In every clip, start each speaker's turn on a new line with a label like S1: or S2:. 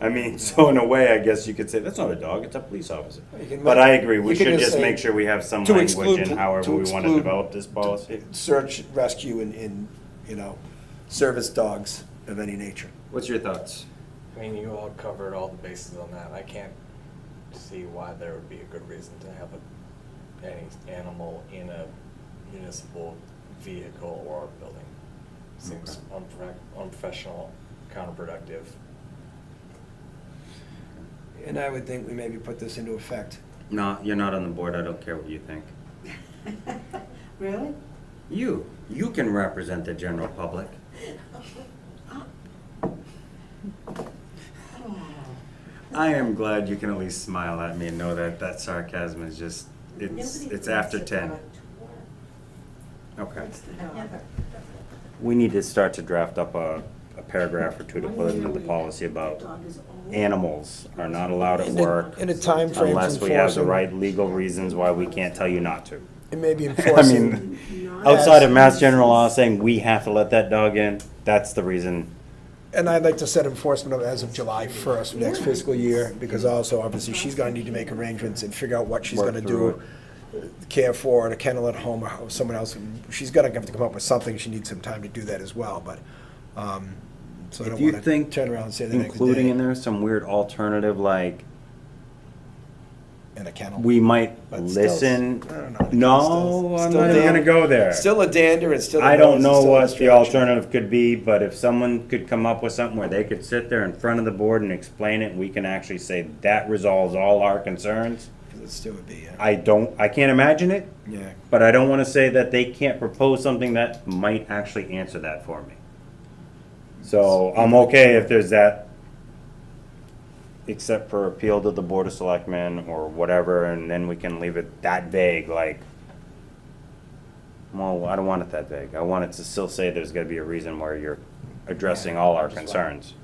S1: I mean, so in a way, I guess you could say, that's not a dog, it's a police officer.
S2: You can
S1: But
S2: make-
S1: I agree, we
S2: you can
S1: should
S2: just
S1: just
S2: say
S1: make sure we have some
S2: to
S1: language
S2: exclude-
S1: in however
S2: to
S1: we want to
S2: exclude-
S1: develop this policy.
S2: Search, rescue, and, and, you know, service dogs of any nature.
S1: What's your thoughts?
S3: I mean, you all covered all the bases on that. I can't see why there would be a good reason to have a, any animal in a municipal vehicle or a building. Seems unpro- unprofessional, counterproductive.
S2: And I would think we maybe put this into effect.
S1: No, you're not on the board, I don't care what you think.
S4: Really?
S1: You, you can represent the general public. I am glad you can at least smile at me and know that that sarcasm is just, it's,
S4: Nobody
S1: it's after
S4: wants to
S1: ten.
S4: go to work.
S1: Okay.
S4: It's the dog.
S1: We need to start to draft up a, a paragraph or two to put into the policy about animals are not allowed at
S2: In a-
S1: work
S2: in a time frame
S1: unless we have the
S2: enforcing.
S1: right legal reasons why we can't tell you not to.
S2: It may be
S1: I
S2: enforcing.
S1: mean, outside of mass general law saying we have to let that dog in, that's the reason.
S2: And I'd like to set enforcement of as of July 1st, next fiscal year, because also obviously she's gonna need to make arrangements and figure out what she's
S1: Work
S2: gonna
S1: through
S2: do. uh, Care for, at a kennel at home, or how- someone else, she's gonna have to come up with something, she needs some time to do that as well, but, um, so I
S1: If
S2: don't
S1: you
S2: wanna
S1: think
S2: turn around and say the next
S1: including in
S2: day
S1: there some weird alternative like
S2: in a kennel.
S1: we might
S2: But still-
S1: listen.
S2: I don't know, I think
S1: No,
S2: it's
S1: I'm
S2: still- still
S1: not even gonna
S2: dan-
S1: go there.
S2: Still a dander and still. a
S1: I don't
S2: noise and
S1: know
S2: still a
S1: what the
S2: distraction.
S1: alternative could be, but if someone could come up with something where they could sit there in front of the board and explain it, we can actually say that resolves all our concerns.
S2: 'Cause It still would be, yeah.
S1: I don't, I can't imagine it,
S2: yeah.
S1: but I don't wanna say that they can't propose something that might actually answer that for me. So I'm okay if there's that, except for appeal to the Board of Selectmen or whatever, and then we can leave it that vague, like, well, I don't want it that vague. I want it to still say there's gotta be a reason where you're addressing all our concerns.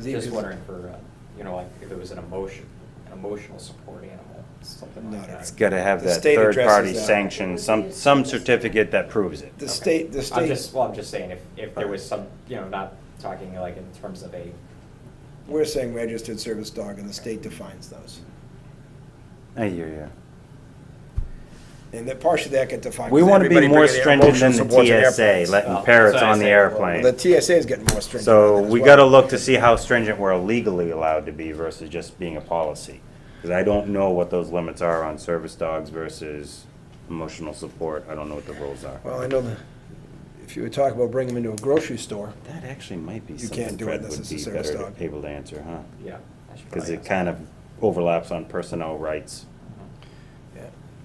S5: Just wondering for, uh, you know, like if it was an emotion, an emotional support animal, something
S2: Not
S5: like
S2: a-
S1: It's
S5: that.
S1: gotta have
S2: The
S1: that
S2: state
S1: third-party
S2: addresses that.
S1: sanction, some, some certificate that proves it.
S2: The
S5: Okay.
S2: state, the
S5: I'm
S2: state,
S5: just, well, I'm just saying if, if there was some, you know, not talking like in terms of a,
S2: we're saying registered service dog and the state defines those.
S1: I hear you.
S2: And that partially that get defined.
S1: We
S2: 'cause
S1: want to be
S2: everybody
S1: more
S2: bringing their
S1: stringent
S2: emotional
S1: than the
S2: supports at
S1: TSA,
S2: airports.
S1: letting
S5: Oh,
S1: parrots
S5: so I
S1: on the
S5: say,
S1: airplane.
S2: The TSA is getting more stringent.
S1: So
S2: on it as
S1: we
S2: well.
S1: got to look to see how stringent we're legally allowed to be versus just being a policy. Because I don't know what those limits are on service dogs versus emotional support. I don't know what the rules are.
S2: Well, I know that, if you were talking about bringing them into a grocery store,
S1: That actually might be
S2: You
S1: something
S2: can't do it
S1: Fred
S2: unless
S1: would
S2: it's a
S1: be
S2: service
S1: better to-
S2: dog. Oh,
S1: able to answer, huh?
S5: yeah. I should
S1: Because
S5: probably
S1: it
S5: ask.
S1: kind of overlaps on personnel rights.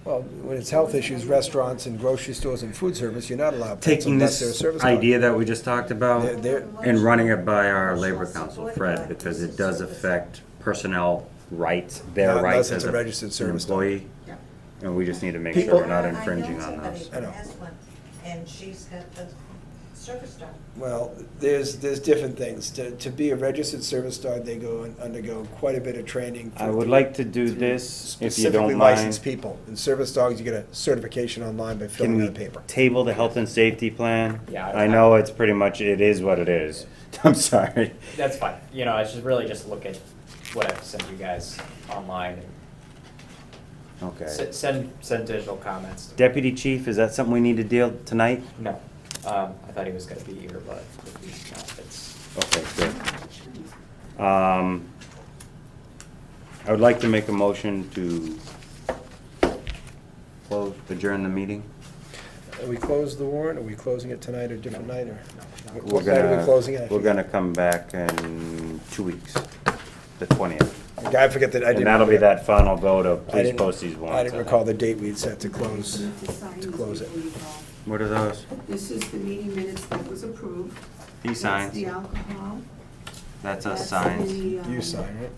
S2: well, when it's health issues, restaurants and grocery stores and food service, you're not allowed pets
S1: Taking
S2: unless they're a
S1: this
S2: service dog.
S1: idea that we just talked about
S2: They're- they're-
S1: and running it by our labor council, Fred, because it does affect personnel rights, their
S2: Not unless
S1: rights
S2: it's
S1: as
S2: a
S1: a-
S2: registered
S1: an
S2: service dog.
S1: employee.
S4: Yeah.
S1: And we just need to make sure
S2: People-
S1: we're not infringing on those.
S4: I know somebody
S2: I know.
S4: who has one, and she's got the service dog.
S2: Well, there's, there's different things. To, to be a registered service dog, they go and undergo quite a bit of training. for-
S1: I would like to do this, if you
S2: Specifically
S1: don't
S2: licensed
S1: mind.
S2: people. And service dogs, you get a certification online by
S1: Can
S2: filling out a
S1: we
S2: paper.
S1: table the health and safety plan?
S5: Yeah, I-
S1: I know it's pretty much, it is what it is. I'm sorry.
S5: That's fine, you know, I should really just look at what I've sent you guys online and
S1: Okay.
S5: se- send, send digital comments.
S1: Deputy chief, is that something we need to deal tonight?
S5: No, um, I thought he was gonna be here, but if he's not, it's.
S1: Okay, good. Um, I would like to make a motion to close, adjourn the meeting.
S2: Are we closed the warrant? Are we closing it tonight or different night or?
S5: no.
S1: We're
S2: What night are we
S1: gonna-
S2: closing it? I
S1: We're
S2: forget.
S1: gonna come back in two weeks, the twentieth.
S2: I forget that, I didn't.
S1: And that'll be
S2: remember.
S1: that final vote of
S2: I
S1: please
S2: didn't-
S1: post these warrants.
S2: I didn't recall the date we'd set to close, to close it.
S1: What are those?
S6: This is the meeting minutes that was approved.
S1: He signs.
S6: That's the alcohol.
S1: That's us
S6: That's
S1: signs,
S6: the, um,
S2: You sign, right?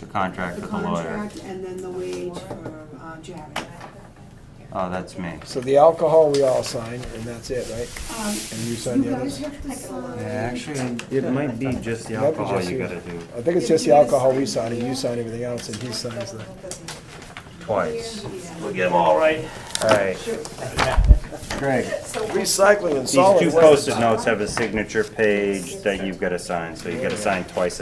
S1: the contract
S6: The
S1: with the lawyer.
S6: contract, and then the wage for uh, Jared.
S1: Oh, that's me.
S2: So the alcohol we all sign, and that's it, right?
S6: Um,
S2: And you sign the
S6: guys
S2: others?
S6: have to sign.
S1: It might be just the
S2: Might be
S1: alcohol
S2: just
S1: you
S2: you.
S1: gotta do
S2: I think it's just the alcohol we sign, and you sign everything else, and he signs the.
S1: twice.
S6: Yeah.
S1: We'll get them all right. All right. Greg.
S2: Recycling and
S1: These two post-it notes have a signature page that you've gotta sign, so you gotta sign twice